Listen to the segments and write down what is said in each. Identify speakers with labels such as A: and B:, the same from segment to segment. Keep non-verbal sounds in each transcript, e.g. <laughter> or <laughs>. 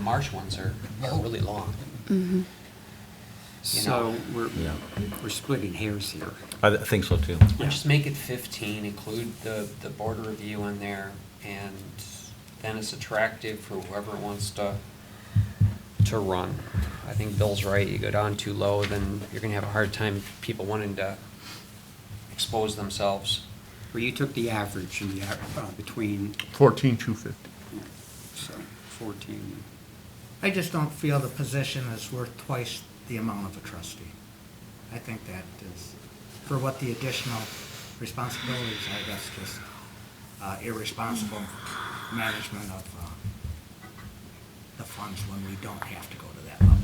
A: marsh ones are, are really long. You
B: So
A: know.
B: we're,
C: Yeah.
B: we're splitting hairs here.
C: I th- think so too.
A: Let's Just make it fifteen, include the, the border review in there, and then it's attractive for whoever wants to, to run. I think Bill's right, you go down too low, then you're gonna have a hard time people wanting to expose themselves.
B: Well, you took the average and the, a- uh, between,
D: Fourteen, two fifty.
B: so fourteen.
E: I just don't feel the position is worth twice the amount of a trustee. I think that is, for what the additional responsibilities, I guess, just uh, irresponsible management of uh, the funds when we don't have to go to that level.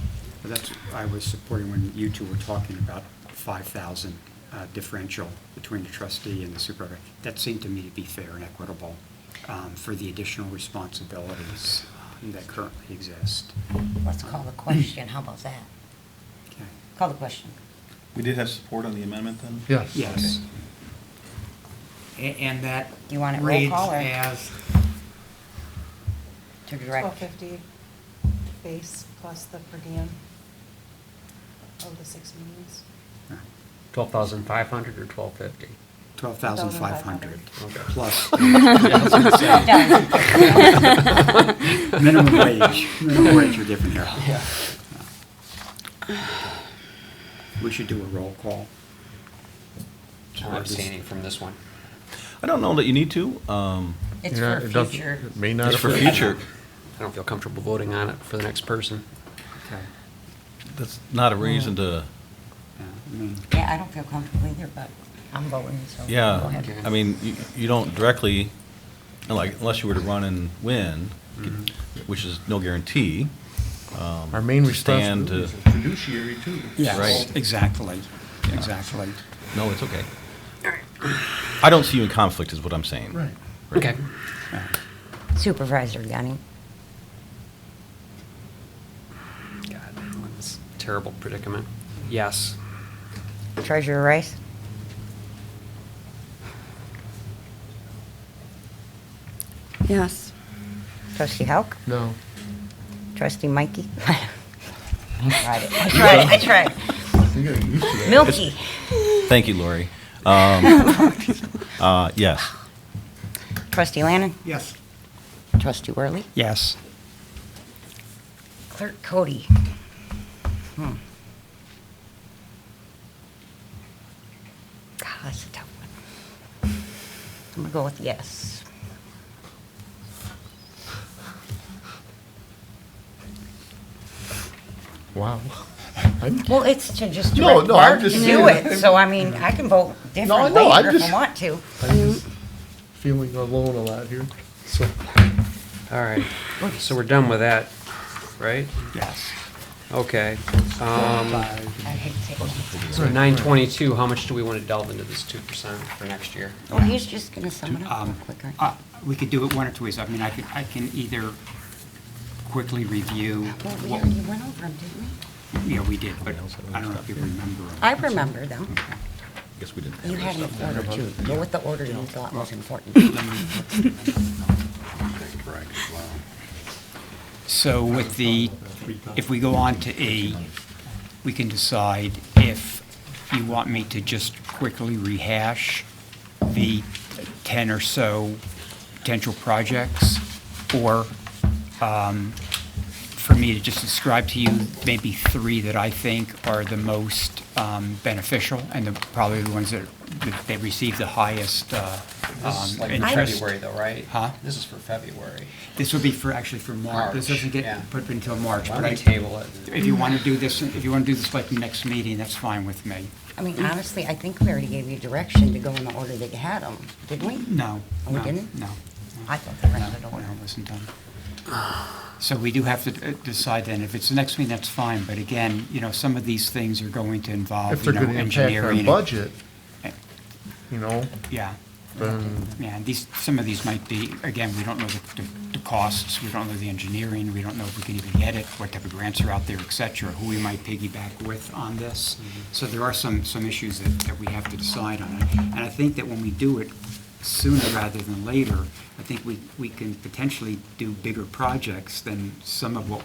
B: But That's, I was supporting when you two were talking about five thousand uh, differential between the trustee and the supervisor. That seemed to me to be fair and equitable um, for the additional responsibilities that currently exist.
F: Let's call the question, how about that?
B: Okay.
F: Call the question.
G: We did have support on the amendment then?
D: Yes.
B: Yes.
E: A- And that
F: Do you want it roll
E: reads
F: call or-
E: as,
F: To direct.
H: Twelve fifty base plus the per diem of the six meetings.
A: Twelve thousand five hundred or twelve fifty?
B: Twelve thousand five hundred
A: Okay.
B: plus
F: Well done.
B: minimum wage. Minimum wage are different here.
A: Yeah.
B: We should do a roll call.
A: I'm abstaining from this one.
C: I don't know that you need to. Um,
D: <laughs>
F: It's
D: Yeah,
F: for
D: it doesn't-
F: future.
D: it May not.
C: it's for
D: affect-
C: future.
A: I don't feel comfortable voting on it for the next person.
B: Okay.
C: That's not a reason to,
B: Yeah, I mean,
F: Yeah, I don't feel comfortable either, but I'm voting, so. go
C: yeah.
F: ahead.
C: I mean, you, you don't directly, like, unless you were to run and win, which is no guarantee. um,
D: Our main
C: to stand
D: responsibility
C: to-
G: Fiduciary too.
B: Yes,
C: Right.
B: exactly, exactly.
C: No, it's okay. I don't see you in conflict is what I'm saying.
D: Right.
A: Okay.
F: Supervisor Yanni,
A: God, that's a terrible predicament. Yes.
F: Treasurer Rice,
I: Yes.
F: Trustee Hauk,
D: No.
F: Trustee Mikey. <laughs> I tried it, I tried it, I tried.
D: You gotta get used to that.
F: it. Milky,
C: Thank you,
F: <laughs>
C: Lori. Um, uh, yes.
F: Trustee Lannan,
E: yes,
F: Trustee Worley,
B: Yes.
F: Clerk Cody. Hmm. God, that's a tough one. I'm gonna go with yes.
D: Wow. I'm-
F: Well, it's to just
D: No,
F: direct
D: no, I'm
F: Mark to
D: just
F: do
D: saying-
F: it, so I mean, I can vote
D: No, I
F: different
D: know, I'm
F: later if
D: just-
F: I want to.
D: I'm just feeling alone a lot here, so.
A: All right. So we're done with that, right?
B: Yes.
A: Okay. Um,
F: I hate to say
A: so nine twenty-two, how much do we want to delve into this two percent for next year?
F: Oh, he's just gonna sum it up real
B: Um,
F: quick, aren't you?
B: uh, We could do it one or two ways. I mean, I could, I can either quickly review.
F: Well, we
B: what-
F: already went over them, didn't we?
B: Yeah, we did, but I don't know if you remember.
F: I remember them.
C: Guess we didn't. have
F: You
C: that
F: had
C: stuff.
F: an order too. Go with the order you thought was important.
B: So with the, if we go on to E, we can decide if you want me to just quickly rehash the 10 or so potential projects, or um, for me to just describe to you maybe three that I think are the most um, beneficial, and the- probably the ones that that they receive the highest uh,
A: This is
B: um,
A: like for
B: interest.
A: February though, right?
B: Huh?
A: This is for February.
B: This would be for, actually for March. This
A: March,
B: doesn't
A: yeah.
B: get put until March,
A: Why
B: but
A: don't we
B: I,
A: table it?
B: if you want to do this, if you want to do this like the next meeting, that's fine with me.
F: I mean, honestly, I think we already gave you direction to go in the order that you had them, didn't we?
B: No.
F: Oh, we
B: no,
F: didn't?
B: No.
F: I thought they were
B: No,
F: in the
B: no,
F: order.
B: it wasn't done. So we do have to uh, decide then, if it's the next meeting, that's fine, but again, you know, some of these things are going to
D: If
B: involve, you
D: they're
B: know,
D: gonna impact
B: engineering.
D: our
B: and-
D: budget,
B: Eh.
D: you know,
B: Yeah,
D: then
B: yeah, and these, some of these might be, again, we don't know the, the- the costs, we don't know the engineering, we don't know if we can even get it, what type of grants are out there, et cetera, who we might piggyback with on this. So there are some, some issues that, that we have to decide on. And I think that when we do it sooner rather than later, I think we, we can potentially do bigger projects than some of what